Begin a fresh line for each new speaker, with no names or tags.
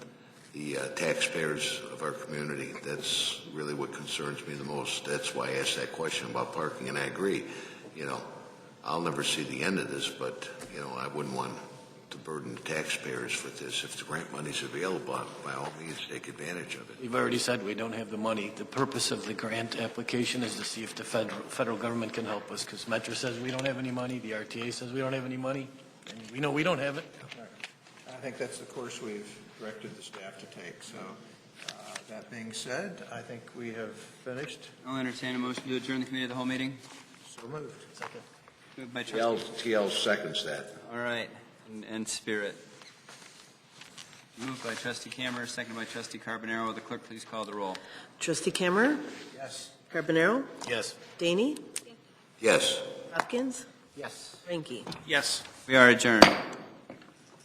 the uh, taxpayers of our community. That's really what concerns me the most. That's why I asked that question about parking, and I agree, you know, I'll never see the end of this, but, you know, I wouldn't want to burden the taxpayers with this. If the grant money's available, by all means, take advantage of it.
You've already said we don't have the money. The purpose of the grant application is to see if the federal, federal government can help us, because Metro says we don't have any money, the RTA says we don't have any money, and we know we don't have it.
I think that's the course we've directed the staff to take, so uh, that being said, I think we have finished,
I'll entertain a motion to adjourn the committee of the whole meeting.
so moved.
Moved by
TL,
trustee.
TL seconds that.
All right, and, and spirit. Moved by trustee Camer, seconded by trustee Carbonaro. Will the clerk please call the roll?
Trustee Cameron,
Yes.
Carbonaro,
Yes.
Daney,
Yes.
Hopkins,
Yes.
Ranky.
We are adjourned.